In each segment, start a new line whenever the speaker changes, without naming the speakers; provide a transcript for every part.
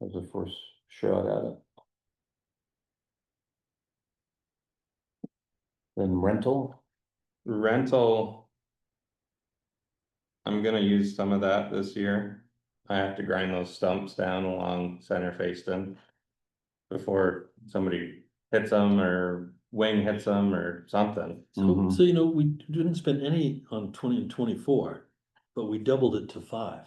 was the first shot at it. Then rental,
rental. I'm gonna use some of that this year. I have to grind those stumps down along center face them. Before somebody hits them or wing hits them or something.
So,
Mhm.
so you know, we didn't spend any on twenty and twenty-four, but we doubled it to five.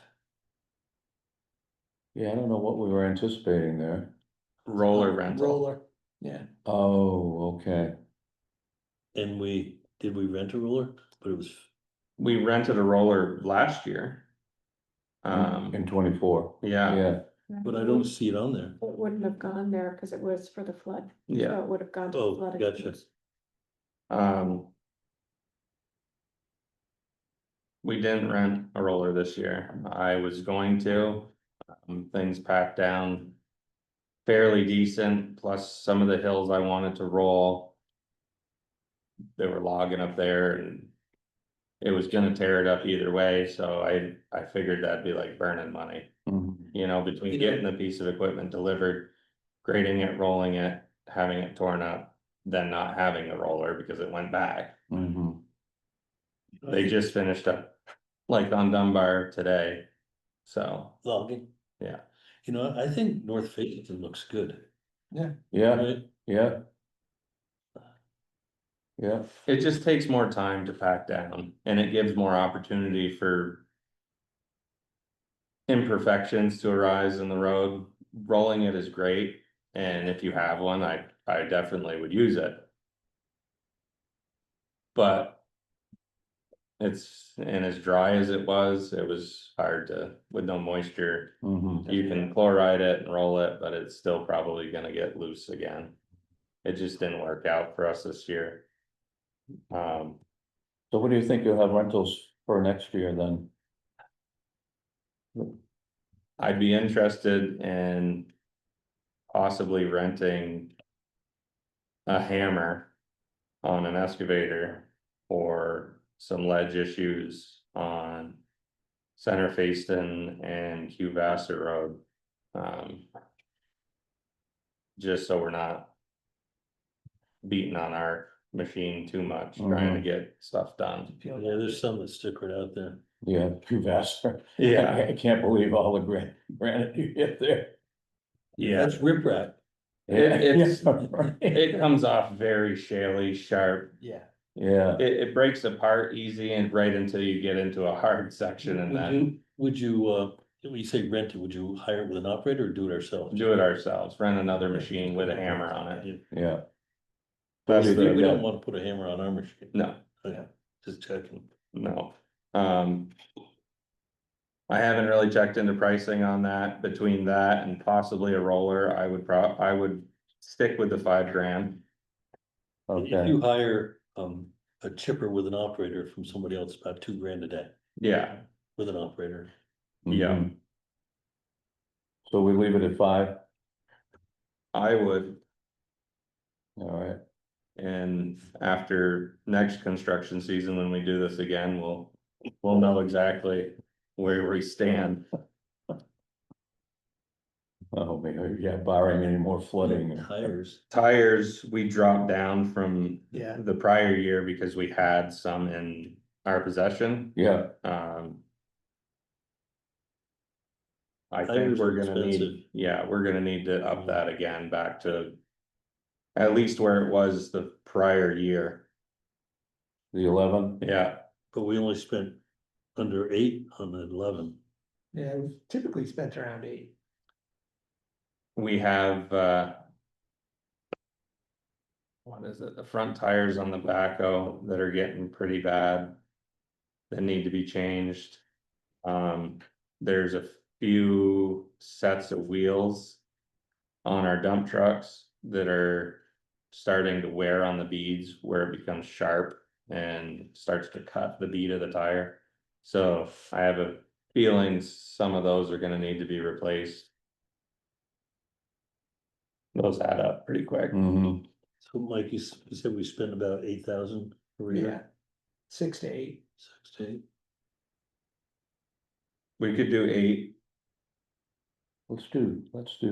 yeah, I don't know what we were anticipating there.
Roller rental,
Roller.
yeah,
Oh, okay,
And we, did we rent a roller? But it was,
we rented a roller last year. Um,
in twenty-four,
yeah,
yeah,
but I don't see it on there.
It wouldn't have gone there because it was for the flood.
yeah.
So it would have gone to
Oh,
flood.
gotcha.
accounts.
Um. We didn't rent a roller this year. I was going to, um, things packed down. Fairly decent, plus some of the hills I wanted to roll. They were logging up there and. It was gonna tear it up either way, so I, I figured that'd be like burning money
Mhm.
you know, between
You know-
getting the piece of equipment delivered, grading it, rolling it, having it torn up, then not having the roller because it went back.
Mhm.
They just finished up like on Dunbar today. So,
Logging.
Yeah.
You know, I think North Fayetteville looks good,
yeah,
right?
yeah. Yeah,
it just takes more time to pack down and it gives more opportunity for imperfections to arise in the road. Rolling it is great. And if you have one, I, I definitely would use it. But it's, and as dry as it was, it was hard to, with no moisture,
mhm.
you can chloride it and roll it, but it's still probably gonna get loose again. It just didn't work out for us this year. Um,
So what do you think you'll have rentals for next year then?
I'd be interested in possibly renting a hammer on an excavator or some ledge issues on Center Facein and Hugh Vassar Road. Um, just so we're not beating on our machine too much, trying to get stuff done.
Yeah, there's some that stick right out there.
Yeah, you've asked her.
Yeah,
I can't believe all the gran- granite you get there.
yeah.
That's riprap.
It- it's-
Yeah, right.
It comes off very shaly, sharp,
Yeah.
Yeah,
It, it breaks apart easy and right until you get into a hard section and
Would
then
you, would you, uh, when you say rent it, would you hire it with an operator or do it ourselves?
do it ourselves, rent another machine with a hammer on it.
Yeah.
yeah.
That's
We we
the,
don't wanna put a hammer on our machine.
no,
Just checking.
no, um. I haven't really checked into pricing on that, between that and possibly a roller, I would prob, I would stick with the five grand.
If
Okay,
you hire, um, a chipper with an operator from somebody else, about two grand a day
Yeah,
with an operator.
yeah,
mhm. So we leave it at five,
I would,
all right,
and after next construction season, when we do this again, we'll. We'll know exactly where we stand.
oh, man, yeah, barring any more flooding.
Tires.
tires, we dropped down from
Yeah.
the prior year because we had some in our possession,
Yeah,
um. I think
Tires are
we're gonna need,
expensive.
yeah, we're gonna need to up that again back to. At least where it was the prior year,
the eleven,
yeah,
But we only spent under eight on the eleven.
Yeah, it was typically spent around eight.
we have, uh. What is it, the front tires on the backhoe that are getting pretty bad. That need to be changed. Um, there's a few sets of wheels. On our dump trucks that are starting to wear on the beads where it becomes sharp and starts to cut the bead of the tire. So I have a feeling some of those are gonna need to be replaced. Those add up pretty quick.
mhm,
So Mike, you s- you said we spent about eight thousand per
Yeah.
year?
Six to eight.
Six to eight.
We could do eight.
Let's do, let's do